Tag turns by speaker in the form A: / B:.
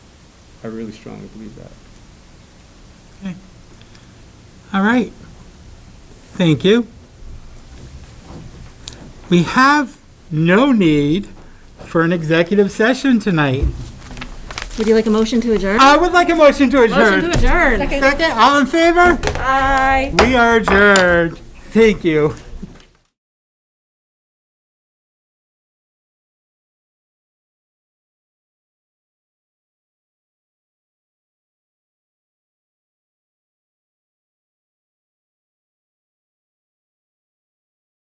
A: I really strongly believe that.
B: All right. Thank you. We have no need for an executive session tonight.
C: Would you like a motion to adjourn?
B: I would like a motion to adjourn.
C: adjourn.
B: Second, all in favor?
C: Aye.
B: We are adjourned. Thank you.